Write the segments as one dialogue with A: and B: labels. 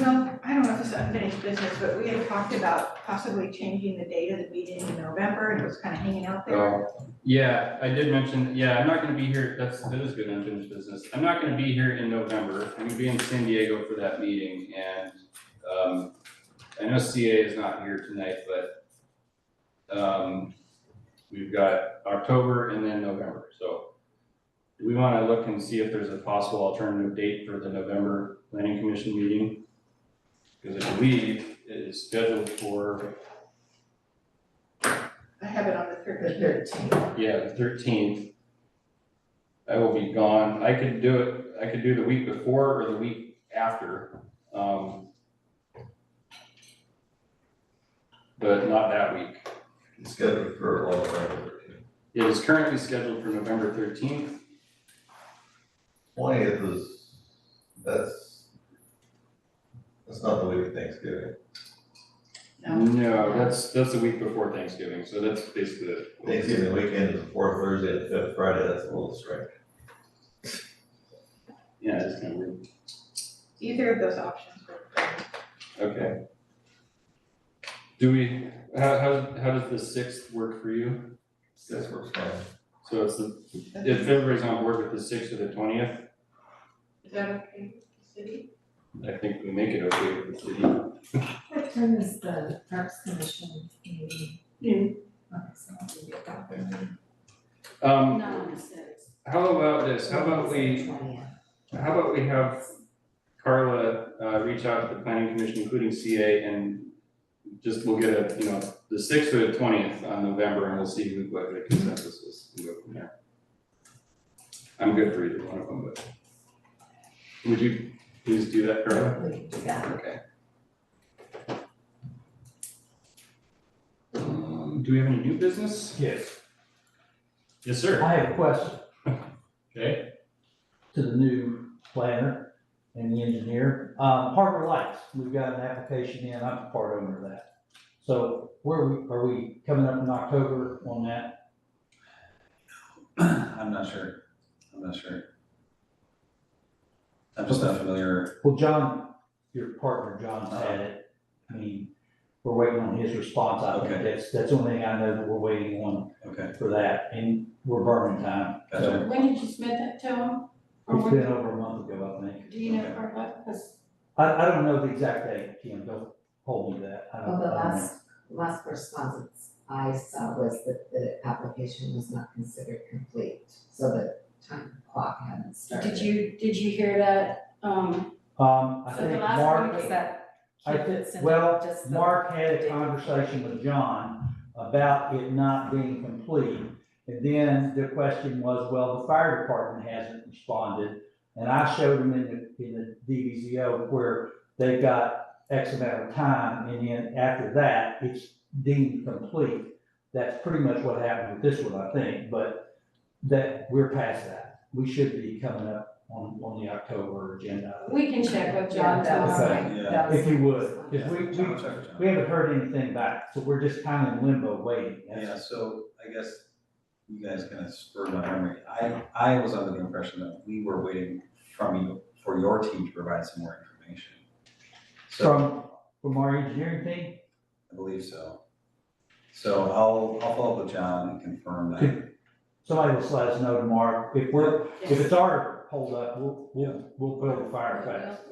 A: Well, I don't know if this is unfinished business, but we had talked about possibly changing the date of the meeting in November, and it was kind of hanging out
B: Oh.
A: there.
C: Uh,
B: Yeah, I did mention, yeah, I'm not gonna be here, that's, that is good unfinished business. I'm not gonna be here in November. I'm gonna be in San Diego for that meeting and, um, I know CA is not here tonight, but, um, we've got October and then November, so. Do we wanna look and see if there's a possible alternative date for the November planning commission meeting? Because I believe it is scheduled for,
A: I have it on the
D: The
A: thirteenth.
D: thirteenth,
B: Yeah, the thirteenth. I will be gone. I could do it, I could do the week before or the week after, um. But not that week.
C: It's scheduled for all around
B: It is currently scheduled for November thirteenth.
C: Twentieth is, that's, that's not the week of Thanksgiving.
A: No,
B: that's, that's the week before Thanksgiving, so that's basically it.
C: Thanksgiving weekend is the fourth Thursday and fifth Friday, that's a little strange.
B: Yeah, it's kind of weird.
A: either of those options were.
B: Okay. Do we, how, how, how does the sixth work for you?
C: Six works fine.
B: So it's the, if everybody's on board with the sixth or the twentieth,
A: Is that okay with the city?
B: I think we make it okay with the city.
D: what time is the Parks Commission meeting?
A: Noon.
D: Okay, so I'll do it that way.
B: Um,
E: Not on the sixth.
B: how about this, how about we,
D: 20th.
B: how about we have Carla, uh, reach out to the planning commission, including CA, and just we'll get a, you know, the sixth or the twentieth on November, and we'll see who, what the consensus is, and go from there. I'm good for either one of them, but would you please do that, Carla?
D: We can do that.
B: Okay. Um, do we have any new business?
F: Yes,
B: Yes, sir.
F: I have a question
B: Okay.
F: to the new planner and the engineer. Um, Harbor Lights, we've got an application in, I'm a part owner of that. So where are we, are we coming up in October on that?
G: I'm not sure, I'm not sure. I'm just not familiar,
F: Well, John, your partner, John's had it. I mean, we're waiting on his response, I think
G: Okay.
F: that's, that's the only thing I know that we're waiting on
G: okay,
F: for that, and we're burning time.
G: gotcha,
E: When did you submit that to him? Or
F: It's
E: when-
F: been over a month ago, I think.
E: Do you know, or what, because
F: I, I don't know the exact date, Kim, don't hold me to that. I don't-
D: Well, the
F: I don't know.
D: last, last correspondence I saw was that the application was not considered complete, so the time clock hadn't started.
E: did you, did you hear that, um,
F: Um, I
E: so the
F: think
E: last one was
F: Mark,
E: that?
F: I
E: kid that
F: think,
E: sent
F: well,
E: just the-
F: Mark had a conversation with John about it not being complete. And then the question was, well, the fire department hasn't responded. And I showed him in the, in the DVZO where they've got X amount of time, and then after that, it's deemed complete. That's pretty much what happened with this one, I think, but that, we're past that. We should be coming up on, on the October agenda. I think.
E: We can check with
D: Yeah,
E: John
D: that was
E: tomorrow.
D: my-
G: Yeah.
D: that was
F: If you
D: my
F: would,
D: response.
F: because we,
G: yeah,
F: we,
G: John, check with John.
F: we haven't heard anything back, so we're just kind of in limbo waiting.
G: Yeah, so I guess you guys kind of spurred my memory, I, I was under the impression that we were waiting from you, for your team to provide some more information. So,
F: From, from our engineering team,
G: I believe so. So I'll, I'll follow up with John and confirm that,
F: somebody will let us know tomorrow, if we're, if it's our holdup, we'll,
G: Yeah.
F: we'll, we'll build a fire fast.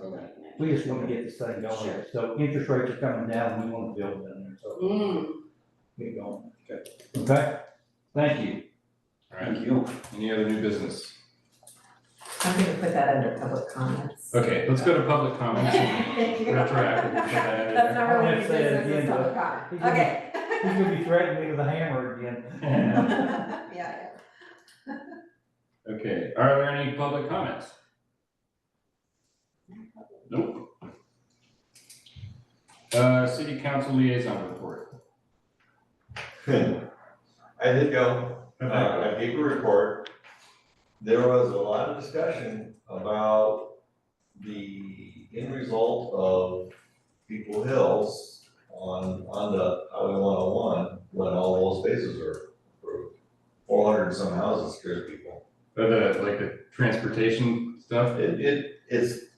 F: We just want to get this thing going,
E: Sure.
F: so interest rates are coming down, we want to build down there, so
E: Mm,
F: get going.
G: Okay.
F: Okay, thank you.
B: All right.
G: thank you.
B: Any other new business?
D: I'm gonna put that under public comments.
B: Okay, let's go to public comments.
D: Thank you.
B: Retroactive, put that in
D: That's
F: there.
D: not really
F: I'll
D: new
F: say it
D: business, it's
F: again,
D: public
F: He's
D: comment,
F: gonna-
D: okay.
F: He's gonna be threatening me with a hammer again.
D: Yeah, yeah.
B: Okay, are there any public comments? Nope. Uh, city council liaison report.
C: I did go, uh, I gave a report. There was a lot of discussion about the end result of People Hills on, on the Highway one oh one, when all those spaces are approved. Four hundred and some houses scares people.
B: Uh, the, like the transportation stuff?
C: It, it, it's